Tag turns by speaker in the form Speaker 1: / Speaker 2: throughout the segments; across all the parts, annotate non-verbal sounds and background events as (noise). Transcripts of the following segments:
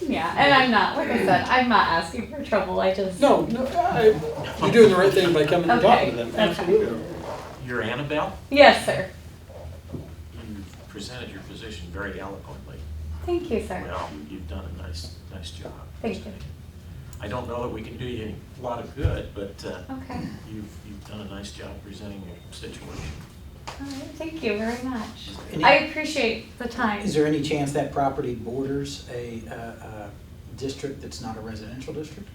Speaker 1: Yeah, and I'm not, like I said, I'm not asking for trouble, I just.
Speaker 2: No, no, I- you're doing the right thing by coming and talking to them,
Speaker 1: Okay, okay.
Speaker 2: absolutely.
Speaker 3: You're Annabelle?
Speaker 1: Yes, sir.
Speaker 3: You presented your position very eloquently.
Speaker 1: Thank you, sir.
Speaker 3: Well, you've done a nice, nice job.
Speaker 1: Thank you.
Speaker 3: I don't know that we can do you any- a lot of good, but uh,
Speaker 1: Okay,
Speaker 3: you've, you've done a nice job presenting your situation.
Speaker 1: all right, thank you very much.
Speaker 4: Any-
Speaker 1: I appreciate the time.
Speaker 4: Is there any chance that property borders a, uh, uh district that's not a residential district?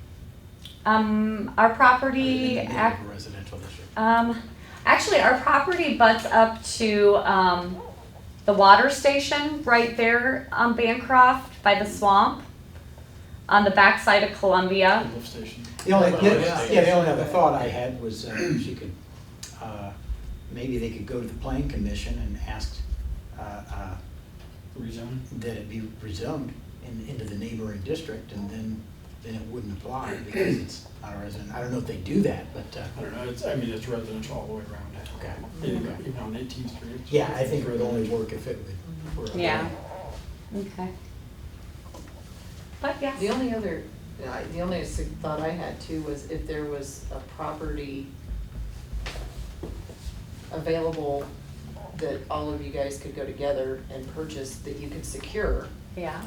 Speaker 1: Um, our property,
Speaker 4: Or is it
Speaker 1: ac-
Speaker 4: a Residential district.
Speaker 1: um, actually, our property butts up to, um, the water station right there on Bancroft by the swamp, on the backside of Columbia.
Speaker 2: Lift station.
Speaker 4: The only,
Speaker 3: Well,
Speaker 4: yeah,
Speaker 3: it's-
Speaker 4: yeah, the only other thought I had was uh, (clears throat) she could, uh, maybe they could go to the planning commission and ask uh, uh,
Speaker 2: Rezone.
Speaker 4: that it be rezoned in- into the neighboring district and then, then it wouldn't apply because it's not a resident. I don't know if they do that, but,
Speaker 2: I
Speaker 4: uh,
Speaker 2: don't know, it's, I mean, it's residential all the way around.
Speaker 4: okay.
Speaker 2: Even even on Eighteenth Street. it's-
Speaker 4: Yeah, I think it
Speaker 2: it's
Speaker 4: would only
Speaker 2: residential.
Speaker 4: work if it would. were a-
Speaker 1: Yeah. Okay. But yes.
Speaker 5: The only other, I- the only sug- thought I had too was if there was a property available that all of you guys could go together and purchase that you could secure
Speaker 1: Yeah,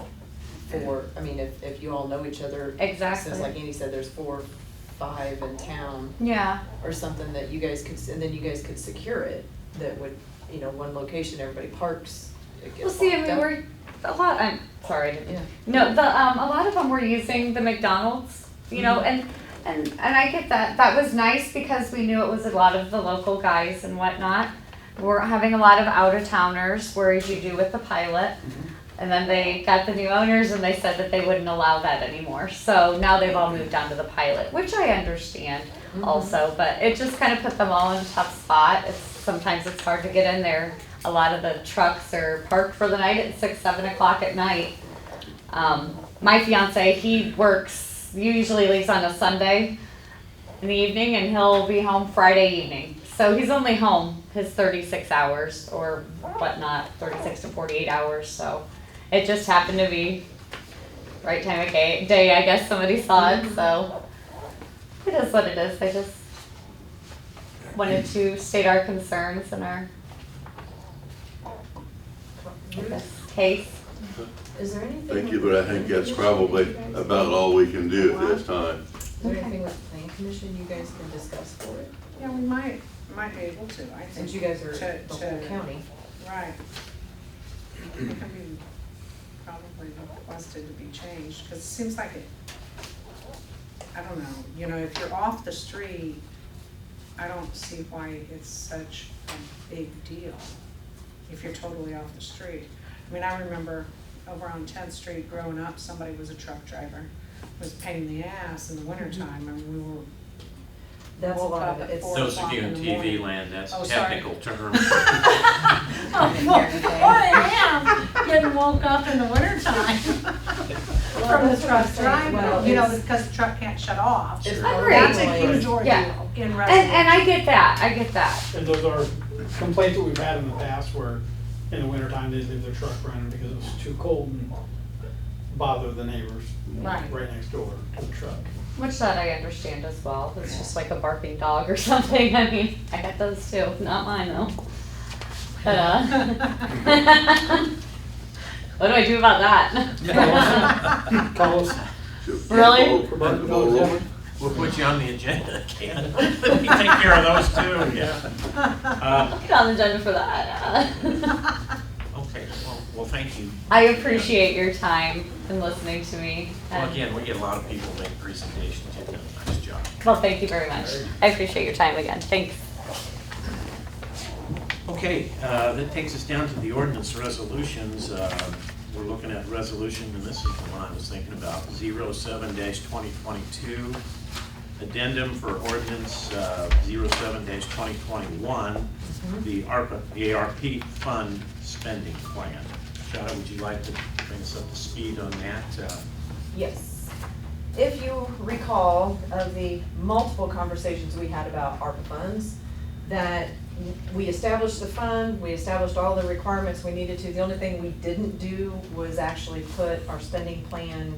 Speaker 5: for, I mean, if, if you all know each other.
Speaker 1: Exactly.
Speaker 5: Since like Andy said, there's four, five in town
Speaker 1: yeah,
Speaker 5: or something that you guys could, s- and then you guys could secure it that would, you know, one location, everybody parks. it
Speaker 1: we'll
Speaker 5: gets
Speaker 1: see, I
Speaker 5: locked
Speaker 1: mean,
Speaker 5: up.
Speaker 1: we're, a lot, I'm sorry, I didn't-
Speaker 5: Yeah.
Speaker 1: no, the, um, a lot of them were using the McDonald's, you know, and, and, and I get that, that was nice because we knew it was a lot of the local guys and whatnot. We're having a lot of out of towners, whereas you do with the pilot. And then they got the new owners and they said that they wouldn't allow that anymore, so now they've all moved on to the pilot, which I understand.
Speaker 5: Mhm.
Speaker 1: also, but it just kind of put them all in a tough spot. It's, sometimes it's hard to get in there. A lot of the trucks are parked for the night at six, seven o'clock at night. Um, my fiance, he works, he usually leaves on a Sunday in the evening and he'll be home Friday evening. So he's only home his thirty-six hours or whatnot, thirty-six to forty-eight hours, so it just happened to be right time of ga- day, I guess somebody saw
Speaker 6: Mm-hmm.
Speaker 1: it, so. It is what it is, I just wanted to state our concerns in our case.
Speaker 5: Is there anything?
Speaker 7: Thank
Speaker 5: with
Speaker 7: you,
Speaker 5: the
Speaker 7: but I
Speaker 5: planning
Speaker 7: think that's
Speaker 5: commission
Speaker 7: probably
Speaker 5: you guys
Speaker 7: about
Speaker 5: can-
Speaker 7: all we can do at this time.
Speaker 5: Is there anything with the planning commission you guys can discuss for it?
Speaker 8: Yeah, we might, might be able to, I think.
Speaker 5: Since you guys are
Speaker 8: To-
Speaker 5: the whole
Speaker 8: to-
Speaker 5: county.
Speaker 8: Right. It could be probably requested to be changed, because it seems like it, I don't know, you know, if you're off the street, I don't see why it's such a big deal if you're totally off the street. I mean, I remember over on Tenth Street growing up, somebody was a truck driver, was a pain in the ass in the wintertime, and we were
Speaker 5: That's a
Speaker 8: Woke
Speaker 5: lot
Speaker 8: up
Speaker 5: of
Speaker 8: at
Speaker 5: it. (laughs) It's.
Speaker 8: four.
Speaker 3: Those of you in
Speaker 8: o'clock in the
Speaker 3: TV
Speaker 8: morning.
Speaker 3: land, that's
Speaker 8: Oh,
Speaker 3: a
Speaker 8: sorry.
Speaker 3: technical term.
Speaker 5: (laughs)
Speaker 6: I am getting woke up in the wintertime from the truck
Speaker 8: Right,
Speaker 5: Well,
Speaker 8: you know,
Speaker 5: it's-
Speaker 8: because the truck can't shut off.
Speaker 5: It's
Speaker 1: Agreed.
Speaker 8: That's a
Speaker 5: probably-
Speaker 8: huge ordeal
Speaker 1: Yeah. And,
Speaker 8: in
Speaker 1: and
Speaker 8: Russell.
Speaker 1: I get that, I get that.
Speaker 2: And those are complaints that we've had in the past where in the wintertime, they'd leave their truck running because it was too cold and bother the neighbors
Speaker 8: Right.
Speaker 2: right next door to the truck.
Speaker 1: Which that I understand as well. It's just like a barking dog or (laughs) something. I mean, I got those too. Not mine though. But, uh, (laughs) what do I do about that? (laughs)
Speaker 2: Call us.
Speaker 1: Really?
Speaker 3: We'll put you on the agenda, (laughs) Ken. You take care of those
Speaker 8: (laughs)
Speaker 3: too, yeah. Uh,
Speaker 1: Get on the agenda for that. (laughs)
Speaker 3: Okay, well, well, thank you.
Speaker 1: I appreciate your time and listening to me.
Speaker 3: Well,
Speaker 1: and-
Speaker 3: again, we get a lot of people make presentations. You've done a nice job.
Speaker 1: Well, thank you very much. I appreciate your time again. Thanks.
Speaker 3: Okay, uh, that takes us down to the ordinance resolutions. Uh, We're looking at resolution, and this is the one I was thinking about, 07-2022, addendum for ordinance uh, 07-2021, the ARPA, the ARP fund spending plan. Shada, would you like to bring us up to speed on that? Uh,
Speaker 5: Yes. If you recall of the multiple conversations we had about ARPA funds, that we established the fund, we established all the requirements we needed to. The only thing we didn't do was actually put our spending plan